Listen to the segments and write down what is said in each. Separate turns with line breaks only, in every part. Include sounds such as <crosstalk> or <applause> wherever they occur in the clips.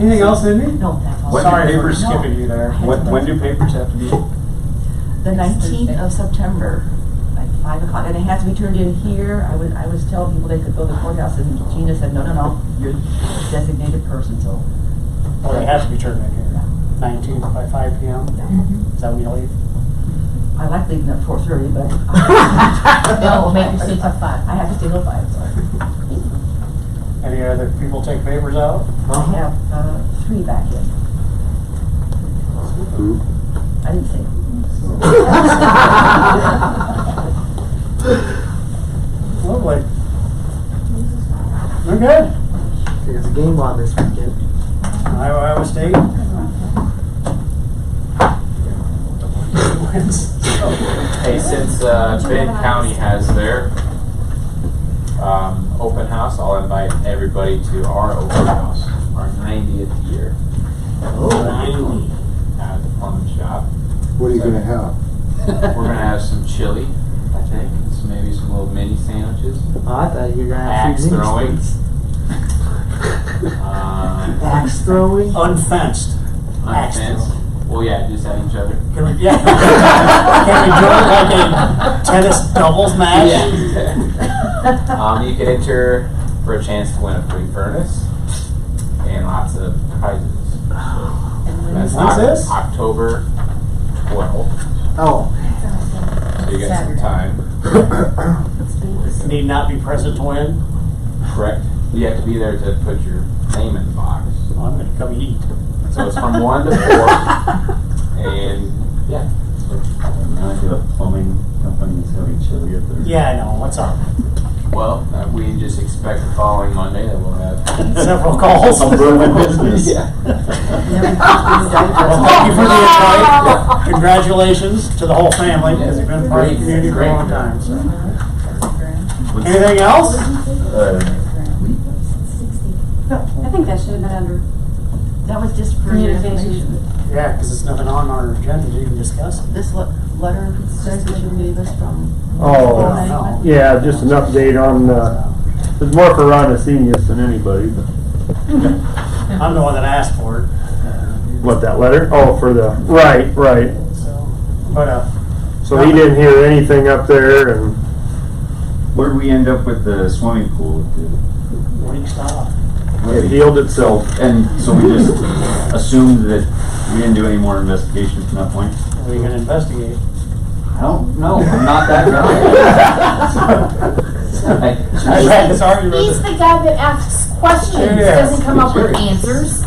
Anything else, Amy?
No, that's all.
When do
Sorry for
papers-
skipping you there. When, when do papers have to be?
The nineteenth of September, like five o'clock, and it has to be turned in here. I was, I was telling people they could go to the courthouse and Gina said, no, no, no, you're a designated person, so.
Or they have Oh, to be turned in here. Nineteenth by five P M.
Mm-hmm.
Is that when you leave?
I like leaving at four thirty,
<laughs>
but.
No, we'll make you stay till five.
I have to stay till five, so.
Any other people take papers out?
I have, uh, three back in. I didn't say.
<laughs>
Lovely. We're good.
There's a game on this weekend.
Iowa, Iowa <laughs> State. Wins.
Hey, since uh, Benton County has their um, open house, I'll invite everybody to our open house, our 90th year. At the plum shop.
What are you gonna have?
We're gonna have some chili, I think, and some, maybe some little mini sandwiches.
Oh, I thought you were gonna have
Axe
some games.
throwing. Um,
Axe throwing.
Unfenced.
on
Axe
fence. Well, yeah, just at each other.
Can we, yeah. <laughs> Can we do it like a tennis doubles match?
<laughs> um, you can enter for a chance to win a free furnace and lots of prizes. That's
When's
Oc-
this?
October 12th.
Oh,
So you got some time.
Need not be present to win?
Correct. You have to be there to put your name in the box.
Well, I'm gonna come eat.
So it's from 1 to 4. And yeah.
Now I do a plumbing company is having chili at their.
Yeah, I know, what's up? <laughs>
Well, uh, we just expect the following Monday that we'll have.
Several calls.
I'm growing my <laughs> business.
Yeah.
Well, thank you for <laughs> the invite. Congratulations to the whole family, because you've been part of the
Great,
community for a
great.
long time, so.
What's-
Anything else?
<laughs> uh,
I think that should have been under
That was just for your
Communication.
information.
Yeah, because it's nothing on our agenda to even discuss.
This le- letter, says that you gave us from.
I
Oh,
don't know.
yeah, just an update on, uh, it's more for Ron Acenius than anybody, but,
I'm the one that asked for
what, that letter? Oh, for the, right, right.
it, so. But, uh,
So he didn't hear anything up there and,
Where'd we end up with the swimming pool? at
week stop.
the-
it healed itself.
And so we just assumed that we didn't do any more investigation from that point?
We're gonna investigate.
I don't know, I'm not that <laughs> guy.
I read this argument.
He's the guy that asks questions,
Sure, yeah.
doesn't come up with
<laughs>
answers.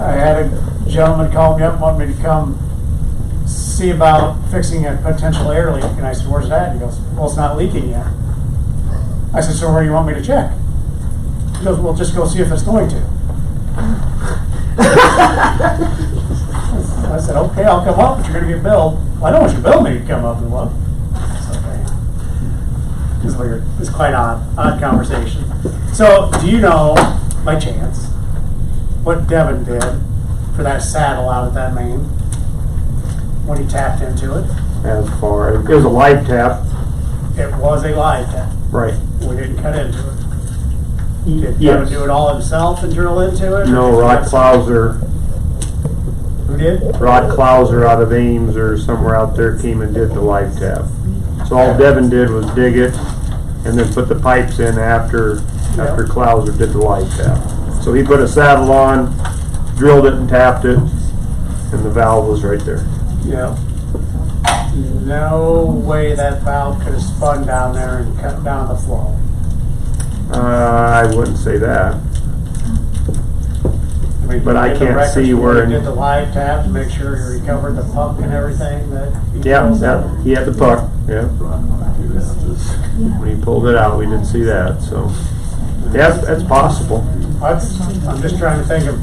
I had a gentleman call me up, and want me to come see about fixing a potential air leak, and I said, where's that? He goes, well, it's not leaking yet. I said, so where do you want me to check? He goes, well, just go see if it's going to. I said, okay, I'll come up, but you're gonna get billed. Well, I don't want you to bill me to come up and look. So, anyway, It's weird, it's quite odd, odd conversation. So, do you know, by chance, what Devin did for that saddle out at that main when he tapped into it.
As far, it was a live tap,
It was a live tap.
right.
We didn't cut into it. Did Devin
Yes.
do it all himself and drill into it?
No, Rod Clauser,
Who did?
Rod Clauser out of Ames or somewhere out there came and did the live tap. So all Devin did was dig it and then put the pipes in after, after Clauser did the live tap. So he put a saddle on, drilled it and tapped it, and the valve was right there.
Yeah. No way that valve could have spun down there and cut down the flow.
Uh, I wouldn't say that.
mean,
But I
did the
can't
records
see where
he
in-
did the live tap to make sure he recovered the pump and everything that. he
Yeah,
drilled?
that, he had the puck, yeah. When he pulled it out, we didn't see that, so. Yeah, that's- that's possible,
I- I'm just trying to think of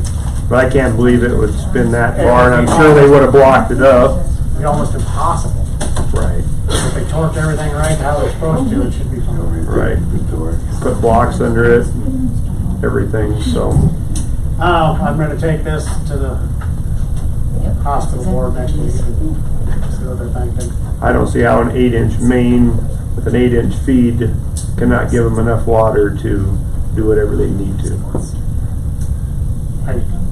but I can't believe it would spin that far, and I'm sure they would have blocked it up.
It'd be almost impossible.
Right.
If they torqued everything right how they're supposed to, it should be fine.
Right. Put blocks under it, everything, so.
Oh, I'm gonna take this to the hospital board next week and see what they're thinking.
I don't see how an eight inch main with an eight inch feed cannot give them enough water to do whatever they need to.
I